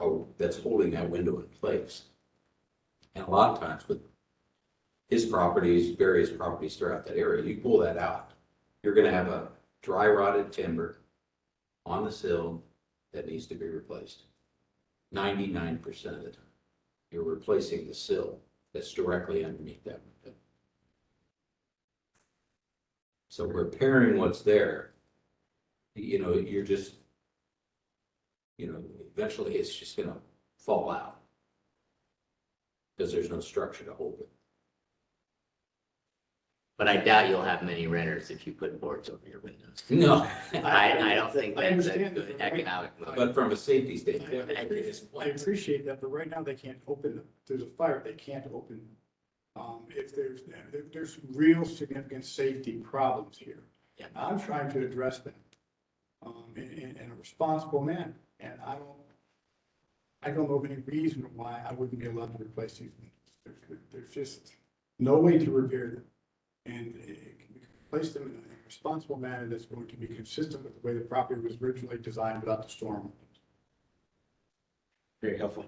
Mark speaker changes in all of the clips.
Speaker 1: oh, that's holding that window in place. And a lot of times with his properties, various properties throughout that area, you pull that out, you're gonna have a dry rotted timber on the sill that needs to be replaced. Ninety-nine percent of the time, you're replacing the sill that's directly underneath that window. So repairing what's there, you know, you're just, you know, eventually it's just gonna fall out. Because there's no structure to hold it.
Speaker 2: But I doubt you'll have many renters if you put boards over your windows.
Speaker 1: No,
Speaker 2: I, I don't think
Speaker 3: I
Speaker 2: that's a
Speaker 3: understand
Speaker 2: good
Speaker 3: that.
Speaker 2: economic move.
Speaker 1: but from a safety
Speaker 3: I
Speaker 1: standpoint, it is
Speaker 3: appreciate- I appreciate that, but right now they can't open, there's a fire, they can't open. Um, if there's, there- there's real significant safety problems here.
Speaker 2: Yeah.
Speaker 3: I'm trying to address them, um, in, in, in a responsible manner, and I don't, I don't know of any reason why I wouldn't be allowed to replace these windows. There's, there's just no way to repair them. And it can be place them in a responsible manner that's going to be consistent with the way the property was originally designed without the storm.
Speaker 4: Very helpful.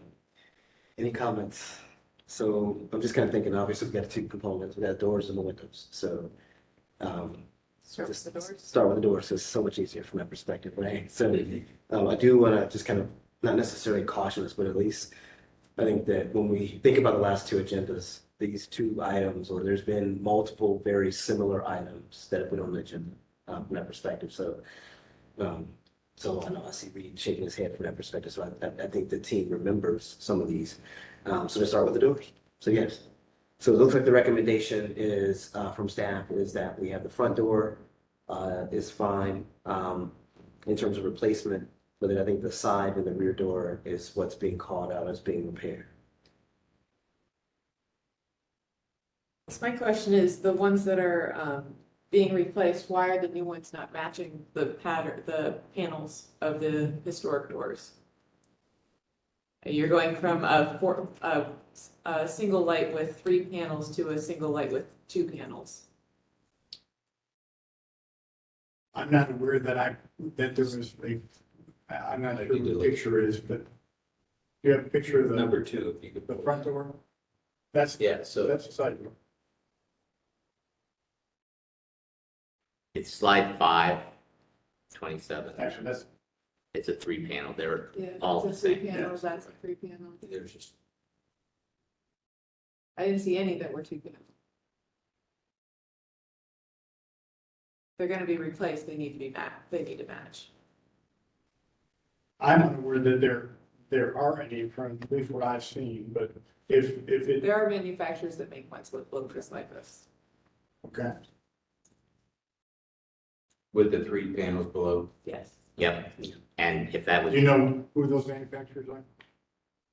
Speaker 4: Any comments? So I'm just kind of thinking, obviously, we've got two components, we've got doors and the windows, so. um,
Speaker 5: Start with
Speaker 4: just
Speaker 5: the doors.
Speaker 4: Start with the doors, it's so much easier from that perspective, right? So um, I do want to just kind of, not necessarily caution us, but at least I think that when we think about the last two agendas, these two items, or there's been multiple very similar items that have been on the agenda um, from that perspective, so. um, So I know I see Reed shaking his head from that perspective, so I- I, I think the team remembers some of these. Um, So let's start with the doors. So yes, so it looks like the recommendation is, uh, from staff is that we have the front door, uh, is fine, um, in terms of replacement. But then I think the side and the rear door is what's being called out as being repaired.
Speaker 5: So My question is, the ones that are um, being replaced, why are the new ones not matching the pattern, the panels of the historic doors? You're going from a four, a, a single light with three panels to a single light with two panels.
Speaker 3: I'm not aware that I, that there was a, I- I'm not sure what the picture is, but do you have a picture of the,
Speaker 1: number two, if you could.
Speaker 3: the front door? That's,
Speaker 1: Yeah, so
Speaker 3: that's the side door.
Speaker 2: It's slide five, twenty-seven.
Speaker 3: Actually, that's,
Speaker 2: It's a three panel. They're
Speaker 5: Yeah,
Speaker 2: All the
Speaker 5: that's a three
Speaker 2: same,
Speaker 5: panels,
Speaker 3: yeah.
Speaker 5: That's a three panel.
Speaker 1: there's just,
Speaker 5: I didn't see any that were two panel. They're gonna be replaced, they need to be ma, they need to match.
Speaker 3: I'm unaware that there, there are any, from at least what I've seen, but if, if it,
Speaker 5: There are manufacturers that make ones look, look just like this.
Speaker 3: okay.
Speaker 1: with the three panels below,
Speaker 5: Yes,
Speaker 2: Yep. And if that
Speaker 3: Do
Speaker 2: was,
Speaker 3: you know who those manufacturers are?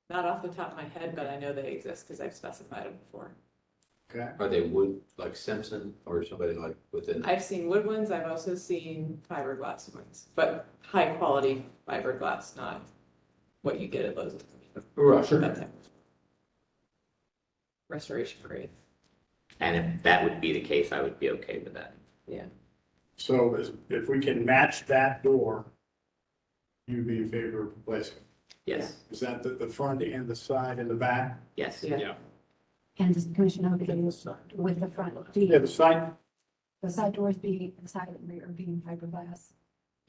Speaker 5: not off the top of my head, but I know they exist because I've specified them before.
Speaker 3: Okay,
Speaker 1: are they wood, like Simpson or somebody like within?
Speaker 5: I've seen wood ones, I've also seen fiberglass ones, but high quality fiberglass, not what you get at Lowe's. That type of- Restoration grade.
Speaker 2: and if that would be the case, I would be okay with that.
Speaker 3: so is- if we can match that door, you'd be in favor of replacing. it.
Speaker 2: Yes,
Speaker 3: Is that the, the front and the side and the back?
Speaker 2: yes.
Speaker 5: Yeah.
Speaker 6: And does the commission agree with the front,
Speaker 3: Yeah,
Speaker 6: the,
Speaker 3: the side,
Speaker 6: the side doors being, the side and rear being fiberglass?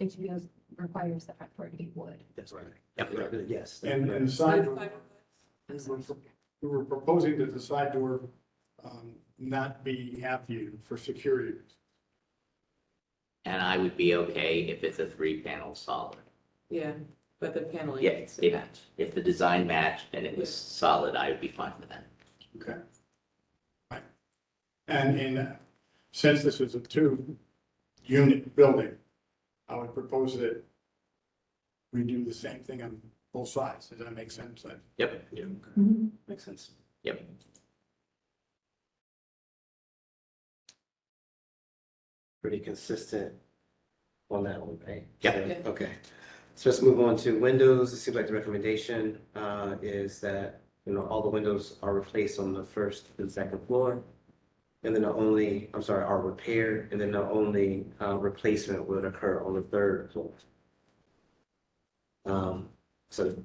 Speaker 6: HBO requires the front door to be wood.
Speaker 4: That's right.
Speaker 1: Yep.
Speaker 4: Yes. that's
Speaker 3: and,
Speaker 4: right.
Speaker 3: and the side door.
Speaker 5: I'm
Speaker 3: We
Speaker 5: sorry.
Speaker 3: were, we were proposing that the side door um, not be half viewed for security.
Speaker 2: And I would be okay if it's a three panel solid.
Speaker 5: Yeah, but the paneling
Speaker 2: Yeah,
Speaker 5: needs to
Speaker 2: it-
Speaker 5: match.
Speaker 2: If the design matched and it was solid, I would be fine with that.
Speaker 3: Okay. Right. And in, since this is a two-unit building, I would propose that we do the same thing on both sides. Does that make sense? Like,
Speaker 2: Yep,
Speaker 4: Makes sense.
Speaker 2: yep.
Speaker 4: Pretty consistent on that one, right?
Speaker 2: Yep.
Speaker 4: So,
Speaker 5: Yeah.
Speaker 4: Okay. So let's move on to windows. It seems like the recommendation, uh, is that, you know, all the windows are replaced on the first and second floor. And then the only, I'm sorry, are repaired, and then the only, uh, replacement would occur on the third floor. Um, so